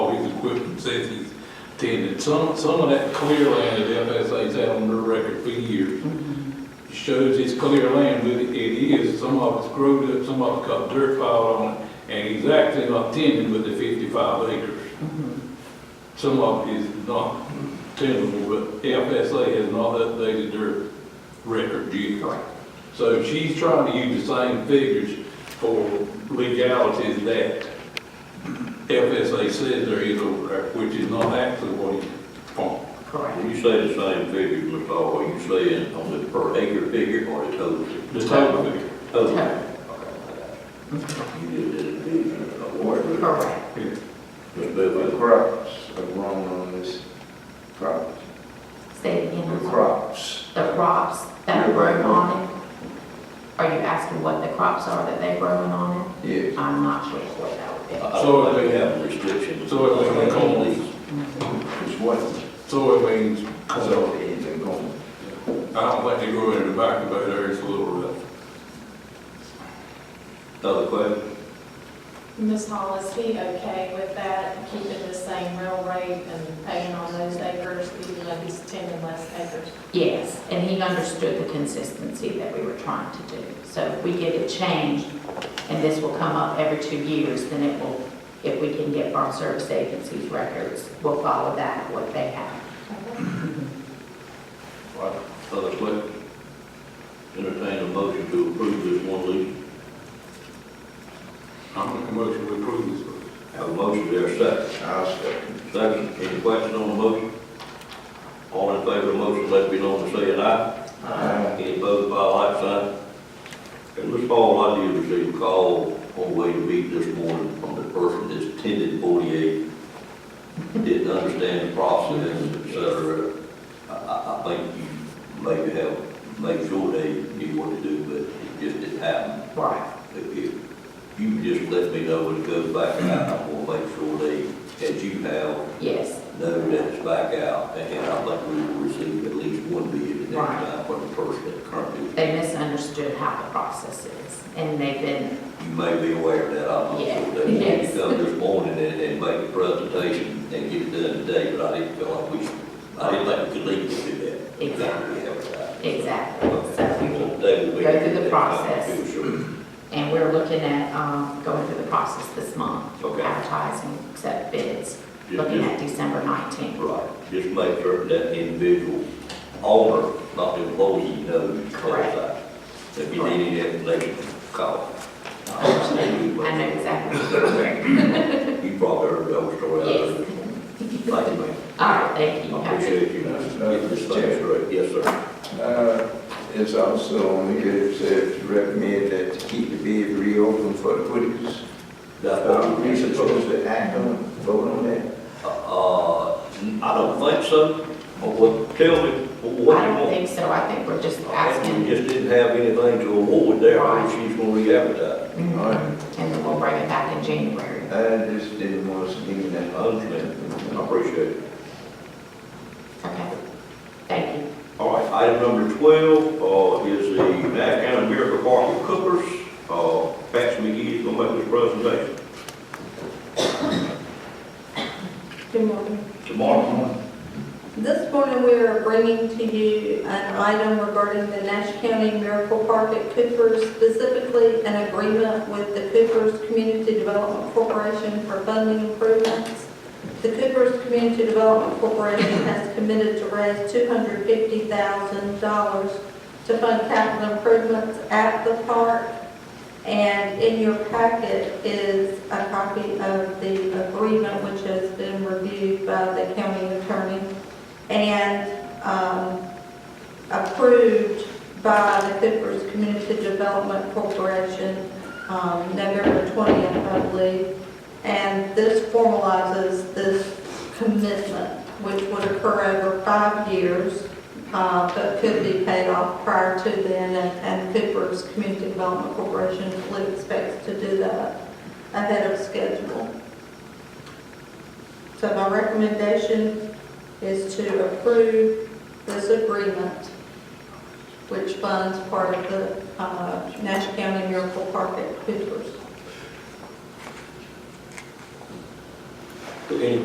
Oh, equipment safety attendant. Some, some of that clear land that FSA's had on their record for years shows it's clear land, but it is, some of it's grown up, some of it's got dirt piled on it, and exactly not tended with the fifty-five acres. Some of it is not tenable, but FSA has not updated their record yet. So she's trying to use the same figures for legality as that FSA says there is over there, which is not actually what it's for. Correct. When you say the same figure, Mr. Hall, are you saying on the per acre figure or the total? The total figure. Total. Total. You did it, you did it, award, but Correct. Yeah. Mr. Bivens, The crops are grown on this property. Say it The again. crops. The crops that are grown on it? Are you asking what the crops are that they're growing on it? Yes. I'm not sure what that would I- be. I So don't think if we they- have restrictions. so if they on call- these. It's what, So it means, so it's a going. I don't think they grow any tobacco back there, it's a little rough. Other question? Ms. Hall, is he okay with that, keeping the same rail rate and paying on those acres, even though he's tending less acres? Yes, and he understood the consistency that we were trying to do. So if we get it changed, and this will come up every two years, then it will, if we can get Farm Service Agency's records, we'll follow that, what they have. Other question? Entertain a motion to approve this one lease. I'm making a motion to approve this one. Have a motion, there, second. I'll second. Second, any question on the motion? All in favor of the motion, let it be known by saying aye. Aye. Any opposed by a like sign? And Ms. Paul, I did receive a call on the way to meet this morning from the person that's tended forty-eight. Didn't understand the process, et cetera. I, I, I think you maybe have, make sure they knew what to do, but it just didn't happen. Right. If you- you just let me know when it goes back out, I'm gonna make sure they, as you have, Yes, know that it's back out, and I think we will receive at least one bid at that Right. time for the person that currently, they misunderstood how the process is, and they've been, you may be aware of that, I'm not Yeah, sure. They need yes. to come this morning and, and make a presentation and get it done today, but I didn't feel like we, should- I didn't think we could leave it to that. Exactly. We have it out. exactly, so we will They will be. Go through the they- process. Sure. And we're looking at um, going through the process this month. Okay. Advertising, accept bids, Yeah, looking yeah. at December 19th. Right, just make sure that individual owner, not the employee, knows. Correct. If you need any information, call. I know exactly. You probably heard that story. I Yes. heard. Thank you, ma'am. All right, thank you. I appreciate you getting this thing straight. Yes, sir. Uh, It's also on the good side to recommend that to keep the bid reopened for the Whitakers. That's Are what we we supposed to act on, vote on that? Uh, I don't think so. But what, tell me, what you I don't want? think so. I think we're just We asking, just didn't have anything to award there, or she's gonna re-advertise. All right, Mm-hmm. and then we'll bring it back in January. I just didn't want to leave I that. understand. I appreciate it. Okay, thank you. All right, item number 12 uh, is the Nash County Miracle Park and Cookers. Uh, Patsy McGee is going to make this presentation. Good morning. Tomorrow, This morning, we are bringing to you an item regarding the Nash County Miracle Park at Coopers, specifically an agreement with the Coopers Community Development Corporation for funding improvements. The Coopers Community Development Corporation has committed to raise $250,000 to fund capital improvements at the park. And in your packet is a copy of the agreement, which has been reviewed by the county attorney and um, approved by the Coopers Community Development Corporation, um, November 20th, I believe. And this formalizes this commitment, which would occur over five years, uh, but could be paid off prior to then, and- and Coopers Community Development Corporation fully expects to do that ahead of schedule. So my recommendation is to approve this agreement, which funds part of the uh, Nash County Miracle Park at Coopers. any